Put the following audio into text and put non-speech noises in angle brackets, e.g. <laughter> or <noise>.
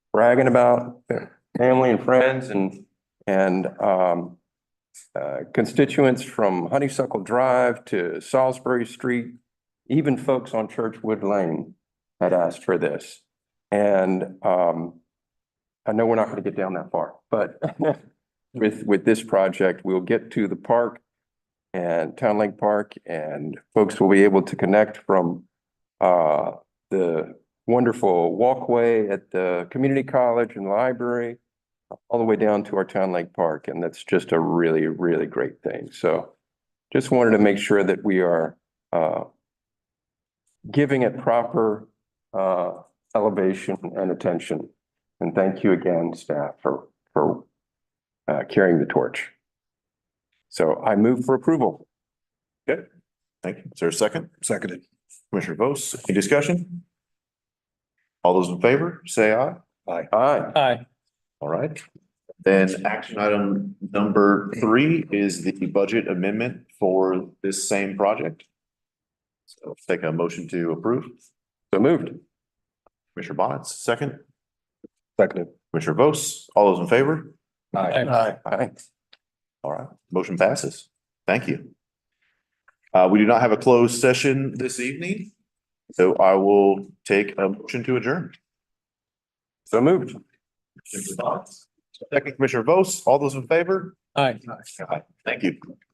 bragging about their family and friends and, and, um, uh, constituents from Honeysuckle Drive to Salisbury Street, even folks on Churchwood Lane had asked for this. And, um, I know we're not gonna get down that far, but <laughs> with, with this project, we'll get to the park and Town Lake Park and folks will be able to connect from, uh, the wonderful walkway at the community college and library all the way down to our Town Lake Park. And that's just a really, really great thing. So just wanted to make sure that we are, uh, giving it proper, uh, elevation and attention. And thank you again, staff, for, for uh, carrying the torch. So I move for approval. Okay, thank you. Is there a second? Seconded. Commissioner Vos, any discussion? All those in favor, say aye. Aye. Aye. All right. Then action item number three is the budget amendment for this same project. So let's take a motion to approve. So moved. Commissioner Bonnet, second. Seconded. Commissioner Vos, all those in favor? Aye. Aye. Aye. All right, motion passes. Thank you. Uh, we do not have a closed session this evening, so I will take a motion to adjourn. So moved. Second, Commissioner Vos, all those in favor? Aye. Aye. Thank you.